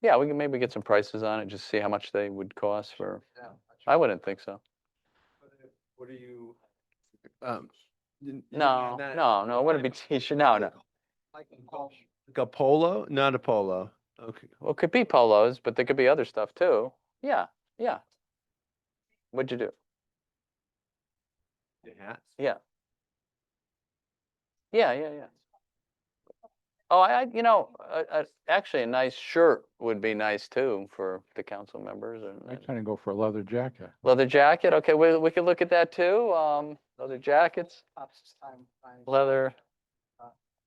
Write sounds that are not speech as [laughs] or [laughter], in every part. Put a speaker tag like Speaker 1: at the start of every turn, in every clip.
Speaker 1: Yeah, we can maybe get some prices on it, just see how much they would cost for, I wouldn't think so.
Speaker 2: What are you?
Speaker 3: Um, n-
Speaker 1: No, no, no, it wouldn't be t-shirt, [laughs] no, no.
Speaker 2: Like a golf.
Speaker 3: like a polo, not a polo. Okay,
Speaker 1: Well, it could be polos, but there could be other stuff too. Yeah, yeah. What'd you do?
Speaker 3: the hats.
Speaker 1: Yeah, yeah, yeah. Oh, I, I- you know, uh, uh, actually, a nice shirt would be nice too for the council members and-
Speaker 4: I
Speaker 1: and
Speaker 4: kind of go for a leather jacket.
Speaker 1: leather jacket. Okay, we, we could look at that too. Um, leather jackets, leather.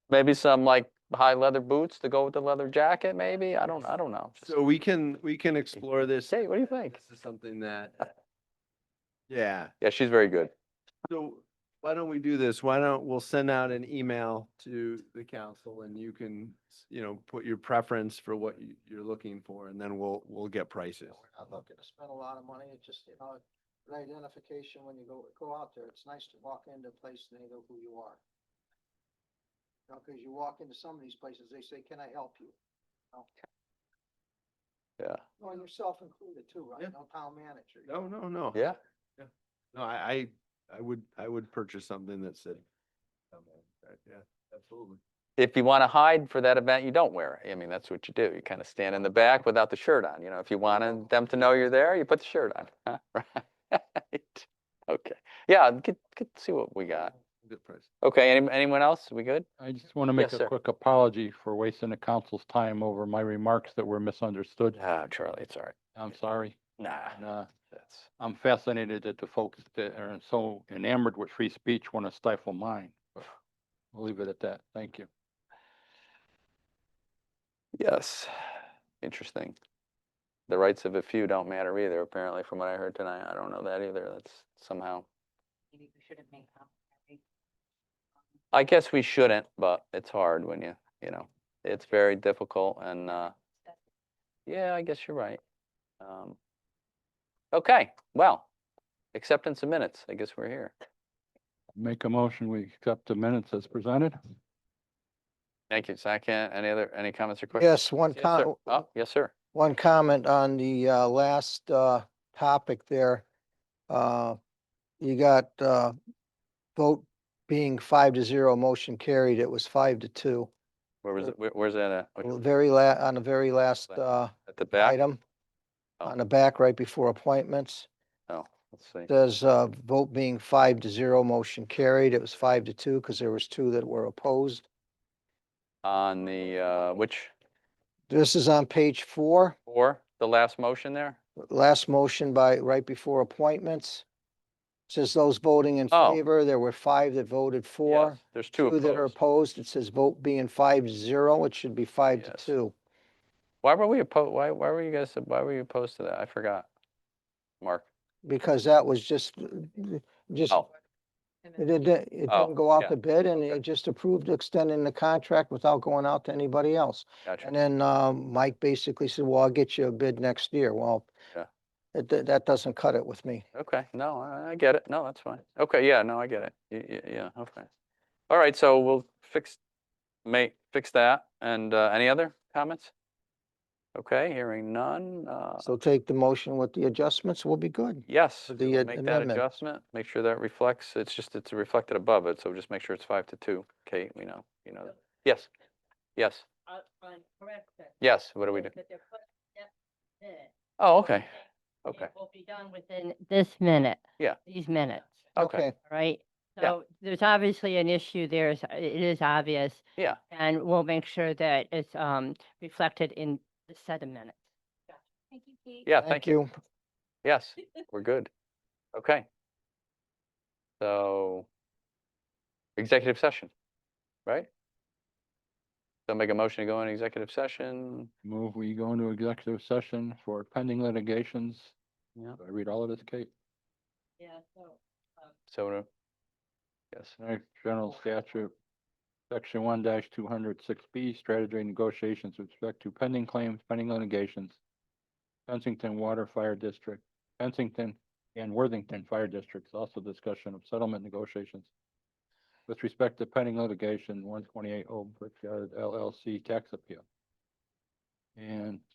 Speaker 1: Maybe some like high leather boots to go with the leather jacket, maybe. I don't, I don't know. Just
Speaker 3: So we can, we can explore this.
Speaker 1: Say, what do you think?
Speaker 3: This is something that, yeah.
Speaker 1: Yeah, she's very good.
Speaker 3: So why don't we do this? Why don't, we'll send out an email to the council and you can, s- you know, put your preference for what you, you're looking for and then we'll, we'll get prices.
Speaker 2: I'm not gonna spend a lot of money, it's just, you know, an identification when you go, go out there, it's nice to walk into a place and they know who you are. You know, cause you walk into some of these places, they say, can I help you? No.
Speaker 1: Yeah.
Speaker 2: Well, and yourself included too,
Speaker 3: Yeah.
Speaker 2: right, no town manager. you
Speaker 3: No, no, no.
Speaker 1: Yeah.
Speaker 3: No, I, I, I would, I would purchase something that said. Yeah, absolutely.
Speaker 1: If you want to hide for that event, you don't wear it. I mean, that's what you do. You kind of stand in the back without the shirt on. You know, if you wanted them to know you're there, you put the shirt on. [laughs] Huh? Right. Okay. Yeah, get, get, see what we got.
Speaker 3: Good price.
Speaker 1: Okay, any, anyone else? We good?
Speaker 4: I just want to make
Speaker 1: Yes,
Speaker 4: a
Speaker 1: sir.
Speaker 4: quick apology for wasting the council's time over my remarks that were misunderstood.
Speaker 1: Ah, Charlie, it's all right.
Speaker 4: I'm sorry.
Speaker 1: Nah,
Speaker 4: And, uh,
Speaker 1: that's,
Speaker 4: I'm fascinated that the folks that are so enamored with free speech want to stifle mine. but We'll leave it at that. Thank you.
Speaker 1: yes, interesting. The rights of a few don't matter either, apparently, from what I heard tonight. I don't know that either. That's somehow.
Speaker 5: maybe we shouldn't make complimentary.
Speaker 1: I guess we shouldn't, but it's hard when you, you know, it's very difficult and, uh, yeah, I guess you're right. Um, okay, well, acceptance of minutes. I guess we're here.
Speaker 4: Make a motion, we accept the minutes as presented.
Speaker 1: Thank you. Second, any other, any comments or questions?
Speaker 6: Yes, one
Speaker 1: Yes,
Speaker 6: com-
Speaker 1: sir. Oh, yes, sir.
Speaker 6: one comment on the uh, last uh, topic there. Uh, You got uh, vote being five to zero, motion carried. It was five to two.
Speaker 1: Where was it? Where- Where's that at? Which-
Speaker 6: Well, uh, Very la, on the very last
Speaker 1: Last
Speaker 6: uh,
Speaker 1: At the back?
Speaker 6: item,
Speaker 1: Oh.
Speaker 6: on the back, right before appointments,
Speaker 1: Oh, let's see.
Speaker 6: says uh, vote being five to zero, motion carried. It was five to two because there was two that were opposed.
Speaker 1: On the, uh, which,
Speaker 6: This is on page four,
Speaker 1: four, the last motion there?
Speaker 6: last motion by, right before appointments. Says those voting in
Speaker 1: Oh.
Speaker 6: favor, there were five that voted for.
Speaker 1: Yes, There's two
Speaker 6: Two that are
Speaker 1: opposed.
Speaker 6: opposed, it says vote being five zero, it should be five to
Speaker 1: Yes.
Speaker 6: two.
Speaker 1: Why were we opposed? Why, why were you guys, why were you opposed to that? I forgot. Mark?
Speaker 6: Because that was just, just,
Speaker 1: Oh.
Speaker 6: it didn't, it
Speaker 1: Oh,
Speaker 6: didn't go out
Speaker 1: yeah.
Speaker 6: to bid and
Speaker 1: Okay.
Speaker 6: it just approved extending the contract without going out to anybody else.
Speaker 1: Gotcha.
Speaker 6: And then, um, Mike basically said, well, I'll get you a bid next year. Well,
Speaker 1: Yeah.
Speaker 6: that, that- that doesn't cut it with me.
Speaker 1: Okay, no, I, I get it. No, that's fine. Okay, yeah, no, I get it. Yeah, yeah, okay. All right, so we'll fix, may, fix that. And, uh, any other comments? Okay, hearing none. Uh,
Speaker 6: So take the motion with the adjustments, we'll be good.
Speaker 1: yes,
Speaker 6: for
Speaker 1: we
Speaker 6: the
Speaker 1: will
Speaker 6: ad-
Speaker 1: make that
Speaker 6: amendment.
Speaker 1: adjustment. Make sure that reflects, it's just, it's reflected above it. So just make sure it's five to two. Kate, we know, you know. that. Yes, yes,
Speaker 5: On, Uh, on correct that.
Speaker 1: yes. What do we do?
Speaker 5: That they're put- yep, there.
Speaker 1: Oh, okay,
Speaker 5: And
Speaker 1: okay,
Speaker 5: It will be done within this minute.
Speaker 1: Yeah.
Speaker 5: These minutes,
Speaker 1: okay.
Speaker 5: all right?
Speaker 1: Yeah.
Speaker 5: So there's obviously an issue there. it's- It is obvious.
Speaker 1: Yeah.
Speaker 5: And we'll make sure that it's, um, reflected in the set of minutes. Thank you, Pete.
Speaker 1: Yeah, thank you. Yes, we're good. Okay. So executive session, right? So make a motion to go in executive session.
Speaker 4: Move, we go into executive session for pending litigations.
Speaker 1: Yeah.
Speaker 4: Do I read all of this, Kate?
Speaker 5: [laughs] Yeah, so.
Speaker 1: So, uh, yes,
Speaker 4: Right, General Statute, Section one two hundred six B, strategy and negotiations with respect to pending claims, pending litigations. Kensington Water Fire District, Kensington and Worthington Fire Districts, also discussion of settlement negotiations. With respect to pending oh litigation, one twenty-eight Old Brickyard LLC tax appeal. And